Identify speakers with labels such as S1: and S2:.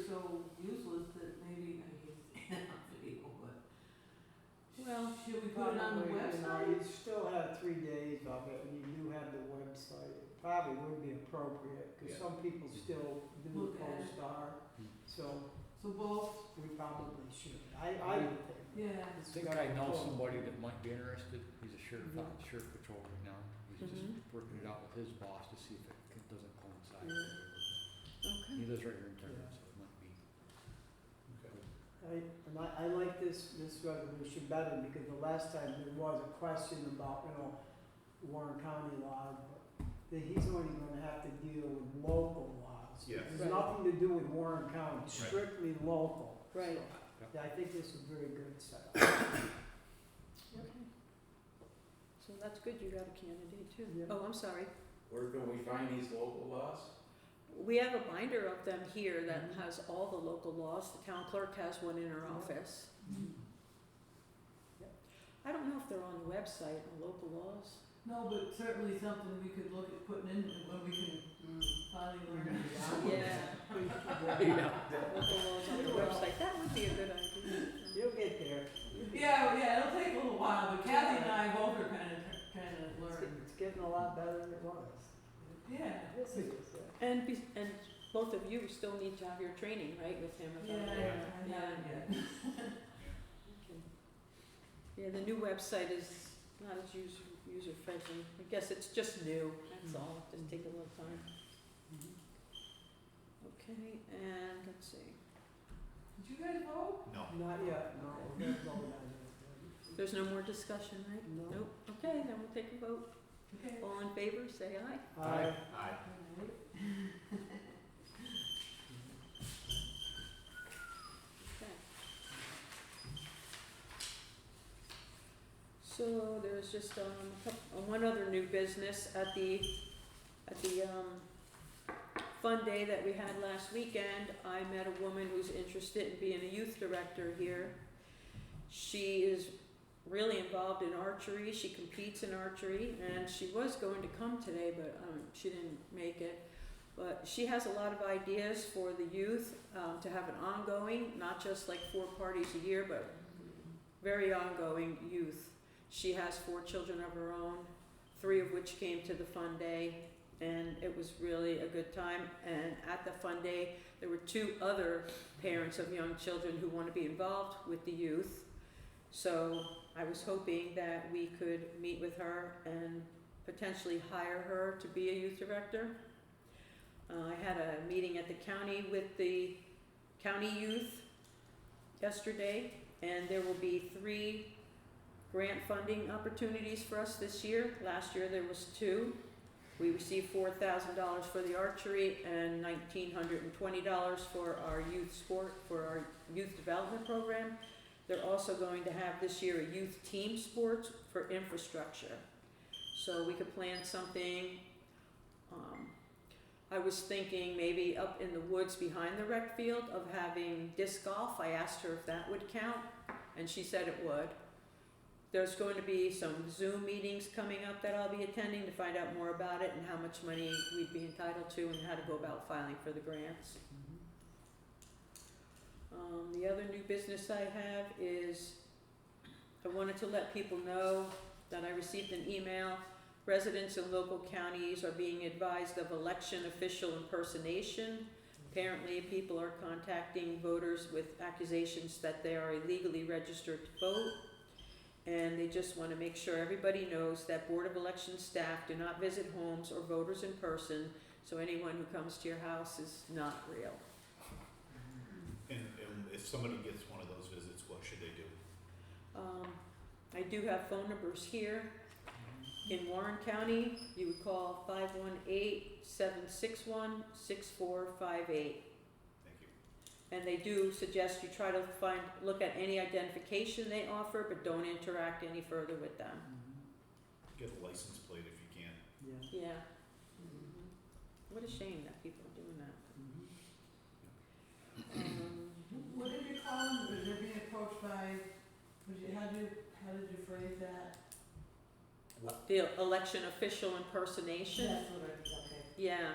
S1: appropriate, because
S2: Yeah.
S1: some people still do
S3: Look
S1: the
S3: at it.
S1: co-star,
S2: Hmm.
S1: so
S3: So both,
S1: we probably should. I, I would think.
S3: yeah.
S2: I think I know somebody that might be interested, he's a sheriff,
S4: Mm-hmm.
S2: out in sheriff patrol right now, he's just working it out with his boss to see if it c- doesn't coincide. with
S1: Yeah.
S4: Mm-hmm.
S2: whatever.
S4: Okay.
S2: He lives right here in town,
S1: Yeah.
S2: so it might be.
S1: I, and I, I like this, this resolution better because the last time there was a question about, you know, Warren County laws, but that he's only gonna have to deal with local laws.
S2: Yeah.
S1: There's
S4: Right.
S1: nothing to do with Warren County, strictly local.
S4: Right.
S1: So,
S2: Yep.
S1: Yeah, I think this is very good setup.
S4: Okay. So that's good, you got a candidate too.
S1: Yeah.
S4: Oh, I'm sorry.
S5: Where can we find these local laws?
S4: We have a binder of them here that
S2: Mm-hmm.
S4: has all the local laws. The town clerk has one in her
S1: Yeah.
S4: office. I don't know if they're on the website, the local laws.
S3: No, but certainly something we could look at putting in when we can finally learn it.
S4: Yeah. Local laws on the
S1: Well.
S4: website, that would be a good idea.
S1: You'll get there.
S3: Yeah, oh, yeah, it'll take a little while, but Kathy and I both are kind of, kind of
S1: It's,
S3: learning.
S1: get- it's getting a lot better than it was.
S3: Yeah.
S1: This is, uh,
S4: And be, and both of you still need to have your training, right, with him
S3: Yeah,
S4: about that?
S3: I haven't yet.
S4: Okay. Yeah, the new website is not as user, user
S2: Mm-hmm.
S4: friendly. I guess it's just new, that's
S1: Mm.
S4: all. Just take a little time. Mm-hmm. Okay, and let's see.
S3: Did you guys vote?
S1: not yet, no, we're gonna go down
S4: There's no more discussion, right?
S1: there.
S4: Nope. Okay, then we'll take a vote.
S3: Okay. Um,
S4: All in favor, say aye.
S1: No. I,
S2: Aye.
S4: Okay. So there's just um a coup- uh, one other new business at the at the um fun day that we had last weekend. I met a woman who's interested in being a youth director here. She is really involved in archery. She competes in archery and she was going to come today but um she didn't make it. But she has a lot of ideas for the youth um, to have an ongoing, not just like four parties a year, but very ongoing youth. She has four children of her own, three of which came to the fun day, and it was really a good time. And at the fun day, there were two other parents of young children who want to be involved with the youth. So I was hoping that we could meet with her and potentially hire her to be a youth director. Uh, I had a meeting at the county with the county youth yesterday, and there will be three grant funding opportunities for us this year. Last year, there was two. We received four thousand dollars for the archery and nineteen hundred and twenty dollars for our youth sport, for our youth development program. They're also going to have this year a youth team sports for infrastructure. So we could plan something, um, I was thinking maybe up in the woods behind the rec field of having disc golf. I asked her if that would count, and she said it would. There's going to be some Zoom meetings coming up that I'll be attending to find out more about it and how much money we'd be entitled to and how to go about filing for the grants. Um, the other new business I have is, I wanted to let people know that I received an email. Residents in local counties are being advised of election official impersonation. Apparently, people are contacting voters with accusations that they are illegally registered to vote. And they just wanna make sure everybody knows that Board of Election staff do not visit homes or voters in person, so anyone who comes to your house is not real.
S2: And, and if somebody gets one of those visits, what should they do?
S4: Um, I do have phone numbers here. In Warren County, you would call five one eight seven six one six four five eight.
S2: Thank you.
S4: And they do suggest you try to find, look at any identification they offer, but don't interact any further with them.
S2: Get a license plate if you can.
S1: Yeah.
S4: Yeah. Mm-hmm. What a shame that people are doing that.
S1: Mhm.
S4: Um,
S3: What did you call them? Were they being approached by, would you, how did, how did you phrase that?
S4: The election official impersonation.
S3: That's what I, okay.
S4: Yeah,